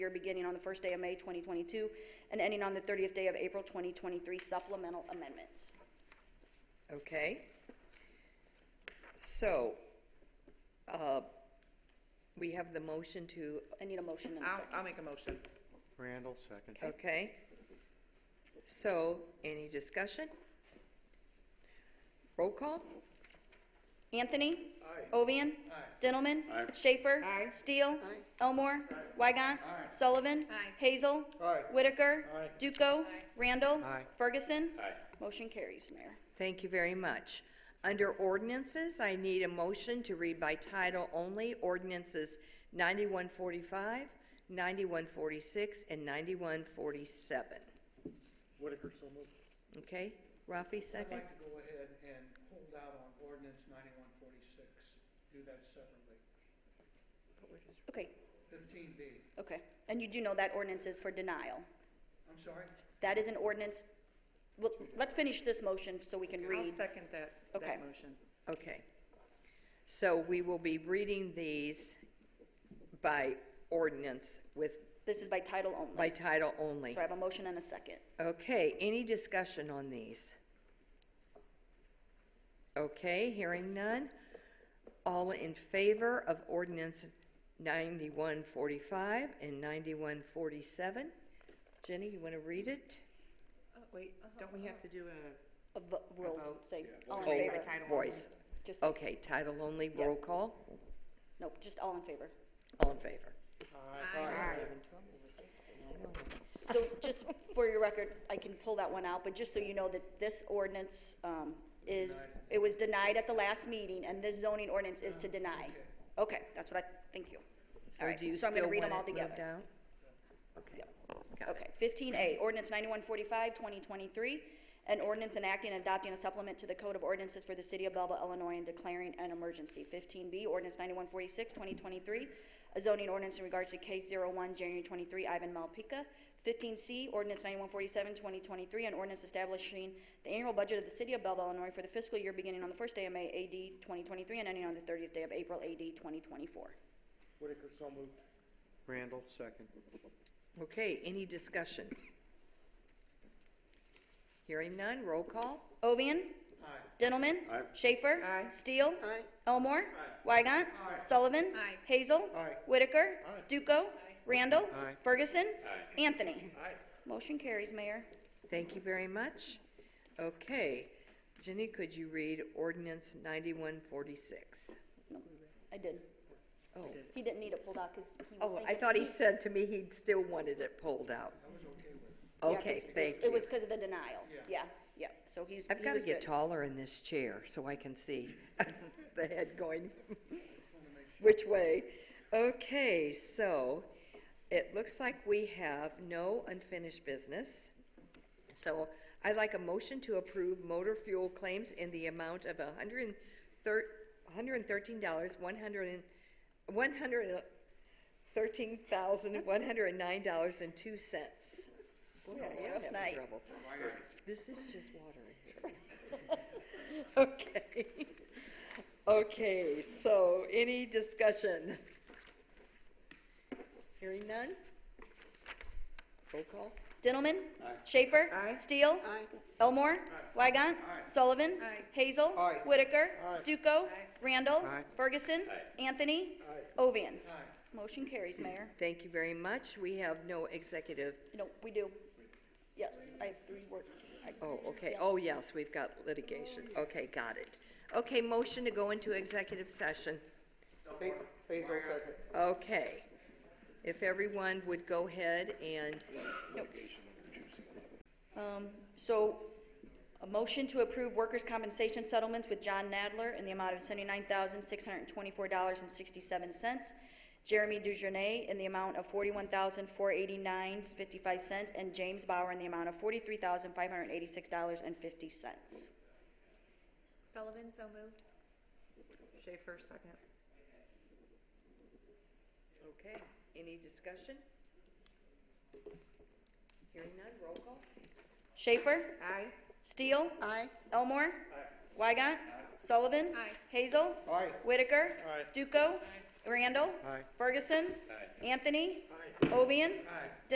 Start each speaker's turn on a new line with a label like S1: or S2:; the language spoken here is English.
S1: year beginning on the first day of May 2022 and ending on the 30th day of April 2023 supplemental amendments.
S2: Okay. So, uh, we have the motion to,
S1: I need a motion and a
S3: I'll,
S1: second.
S3: I'll make a motion.
S4: Randall, second.
S2: okay? So, any discussion? Roll call?
S1: Anthony. Ovian. Dentelman. Schaefer. Steele. Elmore. Weigant. Sullivan. Hazel. Whitaker. Duco. Randall.
S4: Aye.
S1: Ferguson. Motion carries, Mayor.
S2: Thank you very much. Under ordinances, I need a motion to read by title only ordinances 9145, 9146, and 9147.
S5: Whitaker, so moved.
S2: Okay? Rafi,
S5: I'd
S2: second?
S5: like to go ahead and hold out on ordinance ninety-one forty-six, do that separately.
S1: Okay,
S5: Fifteen B,
S1: okay. And you do know that ordinance is for denial.
S5: I'm sorry,
S1: That is an ordinance, well, let's finish this motion so we can
S3: I'll
S1: read.
S3: second that,
S1: Okay.
S3: that motion.
S2: Okay. So we will be reading these by ordinance with,
S1: This is by title
S2: by
S1: only.
S2: title only.
S1: So I have a motion and a second.
S2: Okay, any discussion on these? Okay, hearing none. All in favor of ordinance 9145 and 9147? Jenny, you want to read it?
S3: Wait, don't we have to do a,
S1: A vo- roll,
S3: vote.
S1: say, all in
S2: Oh,
S3: read by
S1: favor.
S3: title
S2: Voice.
S1: Just,
S2: Okay, title only, roll call.
S1: nope, just all in favor.
S2: All in favor?
S1: So just for your record, I can pull that one out, but just so you know that this ordinance um, is, it was denied at the last meeting, and this zoning ordinance is to deny. Okay, that's what I, thank you. All
S2: So
S1: right,
S2: do you
S1: so I'm
S2: still
S1: gonna read
S2: want
S1: them all
S2: it moved
S1: together.
S2: out? Okay, got it.
S1: Okay, fifteen A, ordinance 9145-2023, an ordinance enacting and adopting a supplement to the Code of Ordinances for the City of Belleville, Illinois, and declaring an emergency. Fifteen B, ordinance 9146-2023, a zoning ordinance in regards to case one January twenty-three, Ivan Malpica. Fifteen C, ordinance 9147-2023, an ordinance establishing the annual budget of the City of Belleville, Illinois, for the fiscal year beginning on the first day of May, AD twenty twenty-three, and ending on the thirtieth day of April, AD twenty twenty-four.
S5: Whitaker, so moved.
S4: Randall, second.
S2: Okay, any discussion? Hearing none, roll call?
S1: Ovian.
S5: Aye.
S1: Gentlemen,
S4: Aye.
S1: Schaefer.
S3: Aye.
S1: Steele. Elmore. Weigant. Sullivan.
S3: Aye.
S1: Hazel.
S4: Aye.
S1: Whitaker. Duco. Randall.
S4: Aye.
S1: Ferguson. Anthony.
S5: Aye.
S1: Motion carries, Mayor.
S2: Thank you very much. Okay, Jenny, could you read ordinance ninety-one forty-six?
S1: I did.
S2: Oh,
S1: He didn't need it pulled out because he was
S2: oh,
S1: thinking.
S2: I thought he said to me he still wanted it pulled out.
S1: Yeah,
S2: Okay,
S1: 'cause
S2: thank
S1: It was
S2: you.
S1: because of the denial. Yeah, yeah. So he's.
S2: I've
S1: he
S2: got to
S1: was
S2: get
S1: good.
S2: taller in this chair so I can see the head going which way. Okay, so it looks like we have no unfinished business. So I'd like a motion to approve motor fuel claims in the amount of a hundred and thir- hundred and thirteen dollars, one hundred and, one hundred and thirteen thousand, one hundred and nine dollars and two cents. Boy, I am
S1: Last night.
S2: having trouble. This is just water. Okay. Okay, so any discussion? Hearing none? Roll call?
S1: Gentlemen. Schaefer. Steele. Elmore. Weigant. Sullivan. Hazel. Whitaker. Duco. Randall.
S4: Aye.
S1: Ferguson. Anthony. Ovian. Motion carries, Mayor.
S2: Thank you very much. We have no executive,
S1: No, we do. Yes, I have three work. I-
S2: oh, okay, oh, yes, we've got litigation. Okay, got it. Okay, motion to go into executive session.
S4: Basil, second.
S2: Okay. If everyone would go ahead and,
S1: So, a motion to approve workers' compensation settlements with John Nadler in the amount of seventy-nine thousand, six hundred and twenty-four dollars and sixty-seven cents, Jeremy Dujournay in the amount of forty-one thousand, four eighty-nine, fifty-five cents, and James Bauer in the amount of forty-three thousand, five hundred and eighty-six dollars and fifty cents.
S6: Sullivan, so moved.
S3: Schaefer, second.
S2: okay, any discussion? Hearing none, roll call?
S1: Schaefer?
S3: Aye.
S1: Steele? Aye. Elmore? Aye. Weigant? Sullivan?
S6: Aye.
S1: Hazel?
S4: Aye.
S1: Whitaker?
S5: Aye.
S1: Duco? Randall?
S4: Aye.
S1: Ferguson? Anthony? Ovian?